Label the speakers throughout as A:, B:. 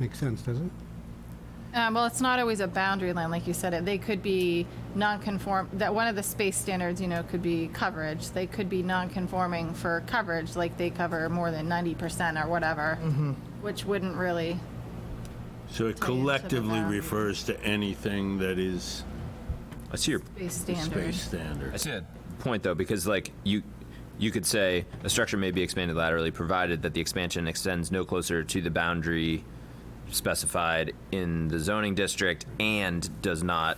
A: Makes sense, doesn't it?
B: Um, well, it's not always a boundary line, like you said. It they could be non-conform. That one of the space standards, you know, could be coverage. They could be non-conforming for coverage, like they cover more than ninety percent or whatever,
C: Mm-hmm.
B: which wouldn't really. Tell
D: So it
B: you to the
D: collectively
B: boundary.
D: refers to anything that is
C: I see your
B: Space standard.
D: space standard.
C: I see that point though, because like you you could say a structure may be expanded laterally provided that the expansion extends no closer to the boundary specified in the zoning district and does not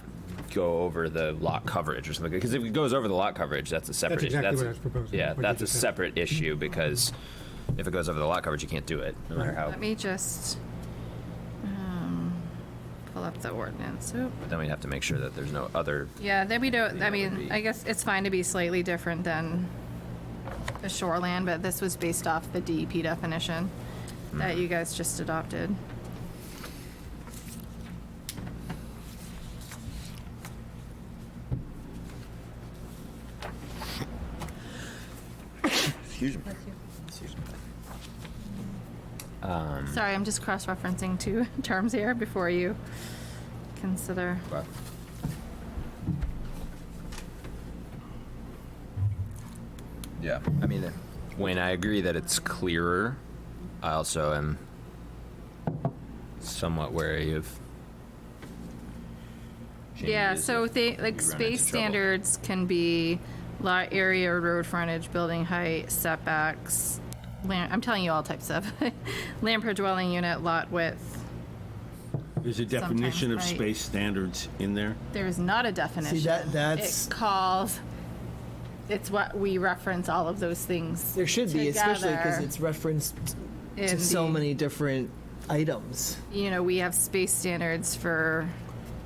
C: go over the lot coverage or something. Because if it goes over the lot coverage, that's a separate.
A: That's
C: issue.
A: exactly what I was proposing,
C: Yeah,
A: what you
C: that's a
A: just said.
C: separate issue because if it goes over the lot coverage, you can't do it, no matter how.
B: Let me just um, pull up the ordinance. Oop.
C: Then we'd have to make sure that there's no other.
B: Yeah, then we don't.
C: Yeah,
B: I
C: it would
B: mean,
C: be-
B: I guess it's fine to be slightly different than the shoreland, but this was based off the DEP definition that
C: Mm.
B: you guys just adopted.
C: Excuse me.
B: Sorry, I'm just cross-referencing two terms here before you consider.
C: Wow. Yeah, I mean, Wayne, I agree that it's clearer. I also am somewhat wary of.
B: Yeah,
C: changes
B: so
C: if
B: they,
C: we run
B: like,
C: into
B: space
C: trouble.
B: standards can be lot area, road frontage, building height, setbacks, land, I'm telling you all types of, land per dwelling unit, lot width.
D: There's a definition of
B: Sometimes, right.
D: space standards in there.
B: There is not a definition.
E: that- that's-
B: It calls, it's what we reference all of those things.
E: There should be, especially because
B: together
E: it's referenced to
B: in
E: so
B: the-
E: many different items.
B: You know, we have space standards for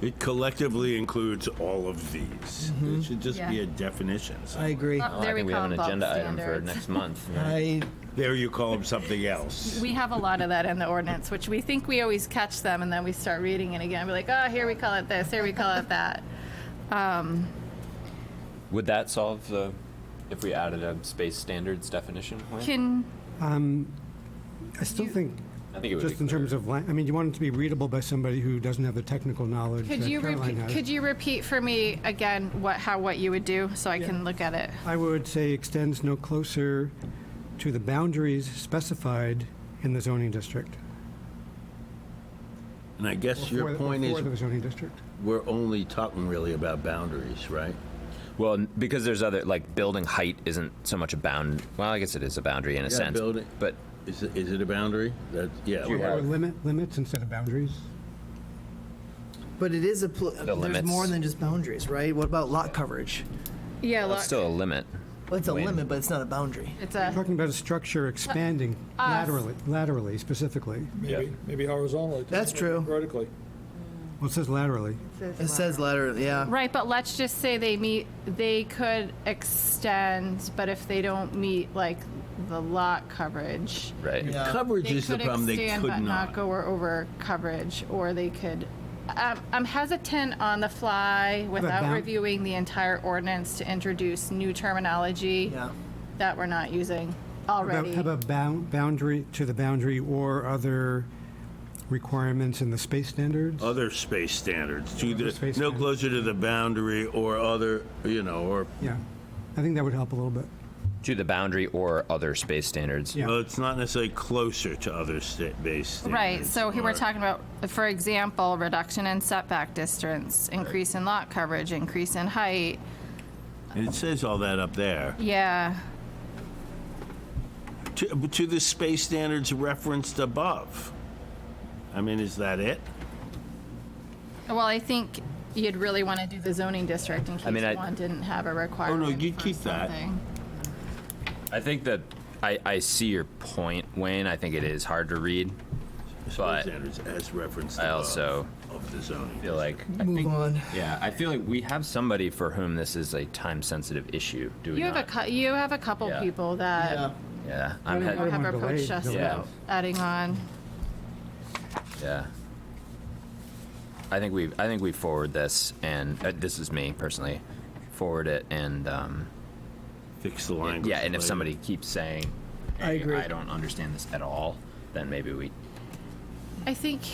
D: It collectively includes all of these. It should just be
B: Mm-hmm. Yeah.
D: a definition. so-
E: I agree.
B: Oh,
C: Well, I
B: there we
C: think we
B: call
C: have an
B: them bulk
C: agenda item for
B: standards.
C: next month.
E: I
D: There you call them something else.
B: We have a lot of that in the ordinance, which we think we always catch them, and then we start reading it again. We're like, oh, here we call it this, here we call it that.
C: Would that solve the, if we added a space standards definition? Wayne?
B: Can,
A: I still think,
C: I think it would be
A: just in terms of, lan- I mean, you want it to be readable by somebody who doesn't have the technical knowledge that
B: could you
A: Caroline
B: repeat, could
A: has.
B: you repeat for me again what, how, what you would do, so I can look at it?
A: I would say extends no closer to the boundaries specified in the zoning district.
D: And I guess
A: For
D: your
A: the-
D: point
A: For the
D: is,
A: zoning district.
D: we're only talking really about boundaries, right?
C: Well, n- because there's other like building height isn't so much a bound. Well, I guess it is a boundary in a
D: Yeah,
C: sense.
D: building-
C: But
D: Is it, is it a boundary? That, yeah. we
A: Or
D: have-
A: limit, limits instead of boundaries.
E: But it is a pl- there's
C: limits.
E: more than just boundaries, right? What about lot coverage?
B: Yeah,
C: that's still a limit.
E: Well, it's a
C: When-
E: limit, but it's not a boundary.
B: It's a,
A: Talking about a structure expanding
B: Uh,
A: laterally, laterally specifically.
F: Maybe, maybe horizontally.
E: That's true.
F: Vertically.
A: Well, it says laterally.
E: It says laterally, yeah.
B: right, but let's just say they meet, they could extend, but if they don't meet, like, the lot coverage,
C: Right.
E: Yeah.
D: Coverage
B: They
D: is the
B: could
D: problem, they
B: extend but
D: could
B: not
D: not.
B: go over coverage, or they could, I'm- I'm hesitant on the fly without
A: bound-
B: reviewing the entire ordinance to introduce new terminology
E: Yeah.
B: that we're not using
A: How about-
B: already.
A: How about bound, boundary, to the boundary or other requirements in the space standards?
D: Other space standards, to
A: Other
D: the,
A: space
D: no
A: standards.
D: closer to the boundary or other, you know, or,
A: Yeah, I think that would help a little bit.
C: To the boundary or other space standards.
A: Yeah.
D: well, it's not necessarily closer to other sta- base standards.
B: Right, so here we're
D: or-
B: talking about, for example, reduction in setback distance, increase in lot coverage, increase in height,
D: And it says all that up there.
B: yeah.
D: To, to the space standards referenced above. I mean, is that it?
B: Well, I think you'd really want to do the zoning district in
C: mean, I-
B: case one didn't have a requirement
D: Oh, you'd
B: for
D: keep that.
B: something.
C: I think that I, I see your point, Wayne. I think it is hard to read.
D: Space
C: But-
D: standards as referenced
C: I
D: above
C: also
D: of the
C: I
D: zoning.
C: feel like I
E: Move
C: think,
E: on.
C: Yeah, I feel like we have somebody for whom this is a time sensitive issue. Do we
B: You have a,
C: not?
B: cou- you have a couple
C: Yeah.
B: people that.
E: Yeah.
C: yeah, I'm
A: I
C: he-
A: don't
B: or
A: wanna
B: have
A: delay
B: approached us
A: delay.
B: about adding on.
C: Yeah. I think we I think we forward this and uh, this is me personally. Forward it and um,
D: Fix the language.
C: yeah, and if
D: later.
C: somebody keeps saying
E: I
C: "Hey,
E: agree.
C: I don't understand this at all, then maybe we
B: I think